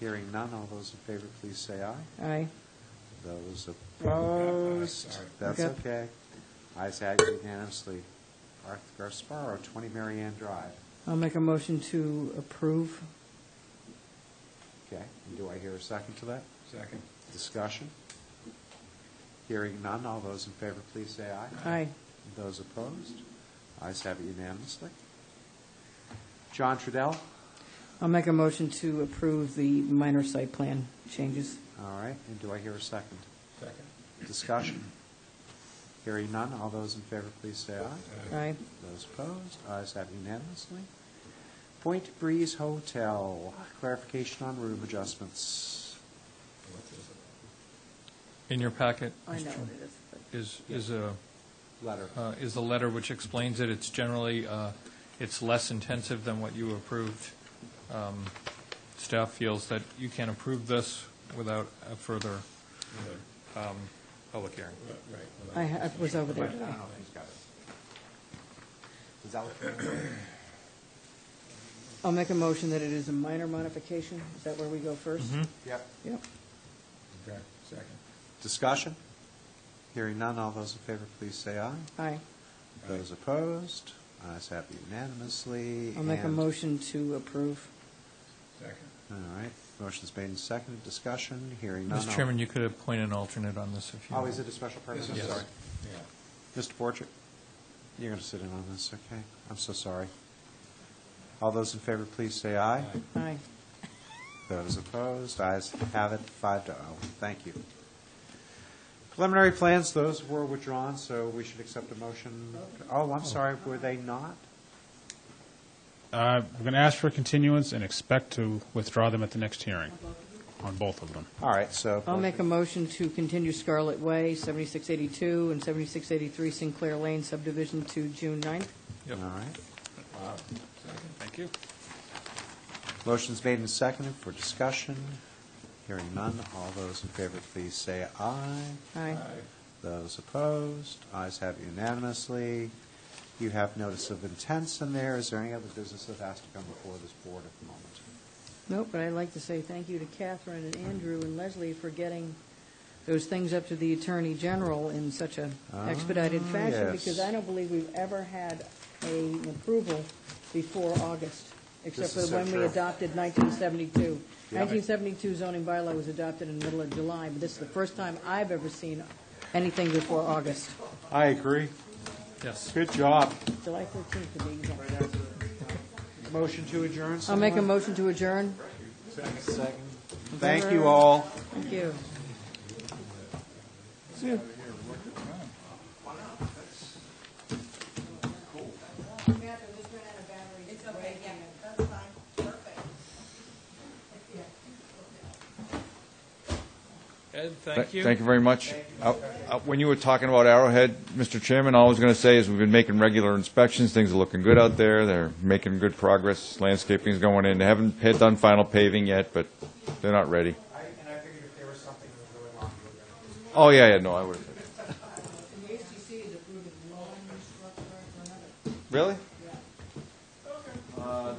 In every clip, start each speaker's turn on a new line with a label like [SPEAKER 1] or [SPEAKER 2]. [SPEAKER 1] Hearing none, all those in favor, please say aye.
[SPEAKER 2] Aye.
[SPEAKER 1] Those opposed, that's
[SPEAKER 2] Okay.
[SPEAKER 1] okay. Ayes have it unanimously. Arthur Gasparo, 20 Marianne Drive.
[SPEAKER 2] I'll make a motion to approve.
[SPEAKER 1] Okay, and do I hear a second to that?
[SPEAKER 3] Second.
[SPEAKER 1] Discussion? Hearing none, all those in favor, please say aye.
[SPEAKER 2] Aye.
[SPEAKER 1] Those opposed, ayes have it unanimously. John Trudell,
[SPEAKER 2] I'll make a motion to approve the minor site plan changes.
[SPEAKER 1] all right, and do I hear a second?
[SPEAKER 3] Second.
[SPEAKER 1] Discussion? Hearing none, all those in favor, please say aye.
[SPEAKER 2] Aye.
[SPEAKER 1] Those opposed, ayes have unanimously. Point Breeze Hotel, clarification on room adjustments.
[SPEAKER 3] What's this about?
[SPEAKER 4] In your packet
[SPEAKER 2] I know what it is. but-
[SPEAKER 4] is, is a,
[SPEAKER 1] Letter.
[SPEAKER 4] uh, is the letter which explains it. It's generally, uh, it's less intensive than what you approved. Um, Staff feels that you can approve this without a further um, public hearing.
[SPEAKER 3] Right, right.
[SPEAKER 2] I ha- I was over
[SPEAKER 1] I
[SPEAKER 2] there
[SPEAKER 1] don't know
[SPEAKER 2] today.
[SPEAKER 1] if he's got it. Is that what?
[SPEAKER 2] I'll make a motion that it is a minor modification. Is that where we go 1st
[SPEAKER 1] Mm-hmm.
[SPEAKER 4] Mm-hmm.
[SPEAKER 1] Yep.
[SPEAKER 2] Yep.
[SPEAKER 3] Okay, second.
[SPEAKER 1] Discussion? Hearing none, all those in favor, please say aye.
[SPEAKER 2] Aye.
[SPEAKER 1] Those opposed, ayes have unanimously.
[SPEAKER 2] I'll make a
[SPEAKER 1] and-
[SPEAKER 2] motion to approve.
[SPEAKER 3] Second.
[SPEAKER 1] All right, motion's made and seconded, discussion, hearing none.
[SPEAKER 4] Mr.
[SPEAKER 1] all-
[SPEAKER 4] Chairman, you could appoint an alternate on this if you.
[SPEAKER 1] Oh,
[SPEAKER 4] want.
[SPEAKER 1] is it a special permit?
[SPEAKER 3] This
[SPEAKER 1] I'm
[SPEAKER 3] is,
[SPEAKER 1] sorry.
[SPEAKER 3] yeah.
[SPEAKER 1] Mr. Borchert, you're going to sit in on this, okay? I'm so sorry. All those in favor, please say aye.
[SPEAKER 2] Aye.
[SPEAKER 1] Those opposed, ayes have it, five to oh. Thank you. Preliminary plans, those were withdrawn, so we should accept a motion. Oh, I'm sorry, were they not?
[SPEAKER 5] Uh, We're going to ask for continuance and expect to withdraw them at the next hearing, on both of them.
[SPEAKER 1] All right, so.
[SPEAKER 2] I'll make a motion to continue Scarlet Way, 7682 and 7683 Sinclair Lane subdivision to June 9th.
[SPEAKER 4] Yep.
[SPEAKER 1] All right.
[SPEAKER 3] Wow, second.
[SPEAKER 4] Thank you.
[SPEAKER 1] Motion's made and seconded for discussion. Hearing none, all those in favor, please say aye.
[SPEAKER 2] Aye.
[SPEAKER 1] Those opposed, ayes have unanimously. You have notice of intents in there. Is there any other business that has to come before this board at the moment?
[SPEAKER 2] Nope, but I'd like to say thank you to Catherine and Andrew and Leslie for getting those things up to the Attorney General in such a expedited
[SPEAKER 1] Ah,
[SPEAKER 2] fashion,
[SPEAKER 1] yes.
[SPEAKER 2] because I don't believe we've ever had a- an approval before August,
[SPEAKER 1] This
[SPEAKER 2] except for
[SPEAKER 1] is so
[SPEAKER 2] when we
[SPEAKER 1] true.
[SPEAKER 2] adopted 1972. 1972 zoning bylaw was adopted in the middle of July, but this is the first time I've ever seen anything before August.
[SPEAKER 1] I agree.
[SPEAKER 4] Yes.
[SPEAKER 1] Good job.
[SPEAKER 2] July 13th to be exact.
[SPEAKER 1] Motion to adjourn.
[SPEAKER 2] I'll make a motion to adjourn.
[SPEAKER 1] Second. Thank you all.
[SPEAKER 2] Thank you.
[SPEAKER 6] It's okay, yeah, that's fine, perfect.
[SPEAKER 4] Ed, thank you.
[SPEAKER 7] Thank you very much. Uh, uh, When you were talking about Arrowhead, Mr. Chairman, all I was going to say is we've been making regular inspections, things are looking good out there, they're making good progress, landscaping's going in, they haven't had done final paving yet, but they're not ready. Oh, yeah, yeah, no, I would.
[SPEAKER 6] And the HTC is approving one structure or another.
[SPEAKER 7] Really? Uh,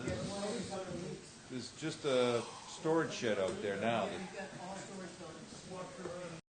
[SPEAKER 7] There's just a storage shed out there now
[SPEAKER 6] You've got all storage buildings.